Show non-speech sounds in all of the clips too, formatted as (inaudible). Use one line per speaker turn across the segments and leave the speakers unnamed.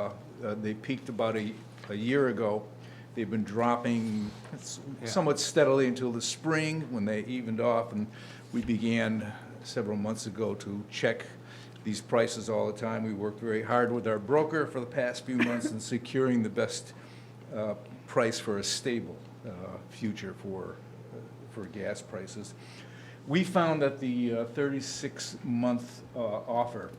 uh, they peaked about a, a year ago. They've been dropping s-
Yeah.
somewhat steadily until the spring, when they evened off, and we began several months ago to check these prices all the time. We worked very hard with our broker for the past few months in securing the best uh, price for a stable uh, future for, for gas prices. We found that the uh, 36-month uh, offer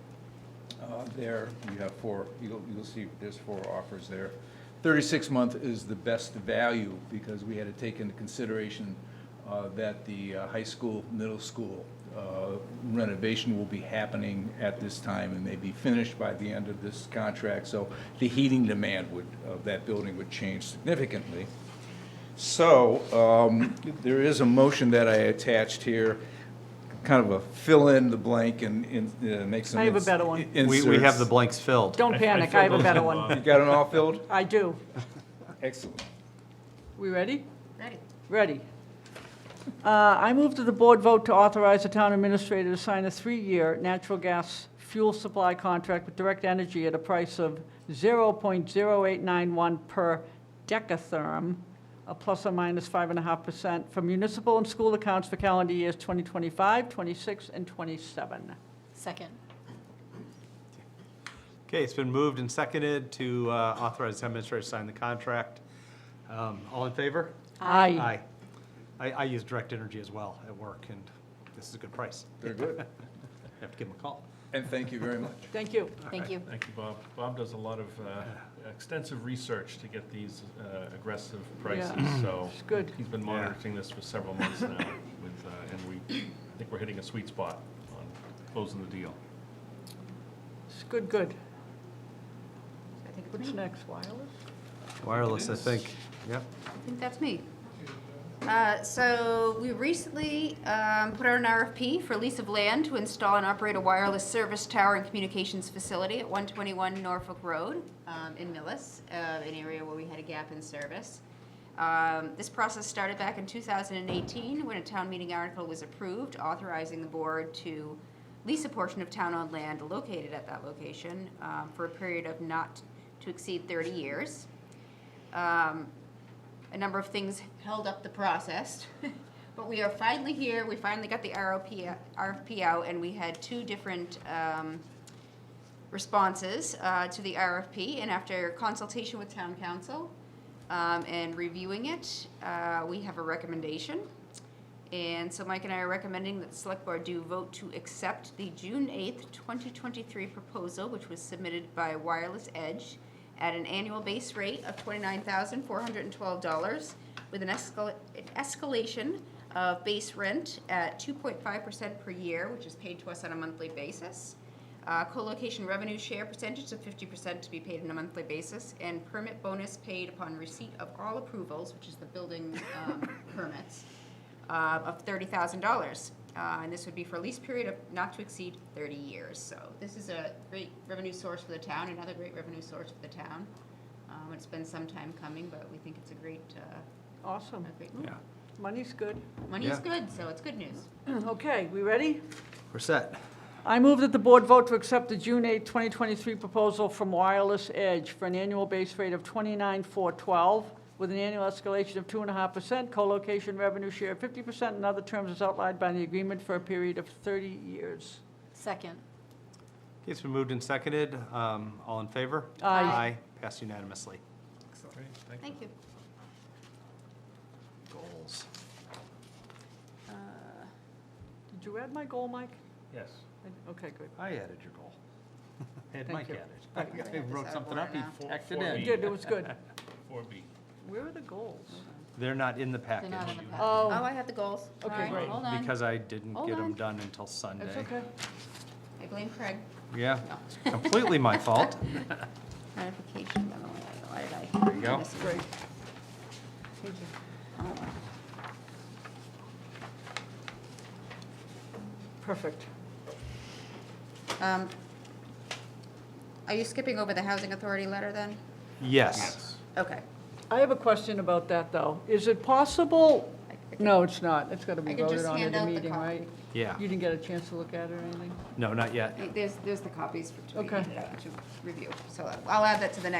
uh, there, you have four, you'll, you'll see there's four offers there. Thirty-six month is the best value because we had to take into consideration uh, that the uh, high school, middle school uh, renovation will be happening at this time and may be finished by the end of this contract. So the heating demand would, of that building would change significantly. So, um, there is a motion that I attached here, kind of a fill in the blank and, and uh, make some.
I have a
ins-
better one.
We, we have the
inserts.
blanks filled.
Don't panic, I have a better
You
one.
got it all filled?
I do.
Excellent.
We ready?
Ready.
Ready. Uh, I move that the board vote to authorize the town administrator to sign a three-year natural gas fuel supply contract with Direct Energy at a price of 0.0891 per decatherm, a plus or minus 5.5% for municipal and school accounts for calendar years 2025, 26, and 27.
Second.
Okay, it's been moved and seconded to uh, authorize the town administrator to sign the contract. Um, All in favor?
Aye.
Aye. I, I use direct energy as well at work, and this is a good price.
Very good.
Have to give them a call.
And thank you very much.
Thank you.
Thank you.
Thank you, Bob. Bob does a lot of uh, extensive research to get these uh, aggressive prices, so.
it's good.
He's been monitoring this for several months now, with, uh, and we, I think we're hitting a sweet spot on closing the deal.
It's Good, good. What's next, wireless?
Wireless, I think. Yep.
I think that's me. Uh, So we recently um, put out an RFP for lease of land to install and operate a wireless service tower and communications facility at 121 Norfolk Road um, in Millis, uh, an area where we had a gap in service. Um, This process started back in 2018 when a town meeting article was approved authorizing the board to lease a portion of town-owned land located at that location um, for a period of not to exceed 30 years. Um, a number of things held up the process. (laughs) But we are finally here, we finally got the RFP, RFP out, and we had two different um, responses uh, to the RFP. And after consultation with town council um, and reviewing it, uh, we have a recommendation. And so Mike and I are recommending that the select board do vote to accept the June eighth, twenty twenty-three proposal, which was submitted by Wireless Edge at an annual base rate of twenty-nine thousand four hundred and twelve dollars with an escal- an escalation of base rent at two point five percent per year, which is paid to us on a monthly basis. Uh, co-location revenue share percentage of fifty percent to be paid on a monthly basis, and permit bonus paid upon receipt of all approvals, which is the building, um, permits uh, of thirty thousand dollars. Uh, And this would be for a lease period of not to exceed thirty years. So this is a great revenue source for the town, another great revenue source for the town. Um, It's been some time coming, but we think it's a great, uh,
Awesome.
a great move.
Yeah.
Money's good.
Money's
Yeah.
good, so it's good news.
Okay, we ready?
We're set.
I move that the board vote to accept the June 8, 2023 proposal from Wireless Edge for an annual base rate of 29,412 with an annual escalation of 2.5%, co-location revenue share of 50%, and other terms as outlined by the agreement for a period of 30 years.
Second.
Okay, it's been moved and seconded. Um, All in favor?
Aye.
Aye, passed unanimously.
Great, thank you.
Thank you.
Goals.
Did you add my goal, Mike?
Yes.
I- Okay, good.
I added your goal. (laughs) I Had
Thank
Mike
you.
added. (laughs)
Right.
I wrote something up, he
Four-
tacked it
four
You
in.
B.
did, it was good.
Four B.
Where are the goals?
They're not in the package.
They're not in the packet.
Oh.
Oh, I have the goals. All
Okay.
right, hold on.
Because I didn't
Hold
get them
on.
done until Sunday.
That's okay.
I blame Craig.
Yeah,
(laughs) No.
it's completely my fault.
(laughs) Ratification memo, why did I?
There you go.
This is-
Great.
hold on.
Perfect.
Um, Are you skipping over the housing authority letter then?
Yes.
Okay.
I have a question about that, though. Is it possible,
I- I can-
no, it's not. It's got to
I
be
can
voted
just
on at
hand
the
out the
meeting,
copy.
right?
Yeah.
You didn't get a chance to look at it or anything?
No, not yet.
There's, there's the copies for, to be
Okay.
handed out to review, so I'll add that to the next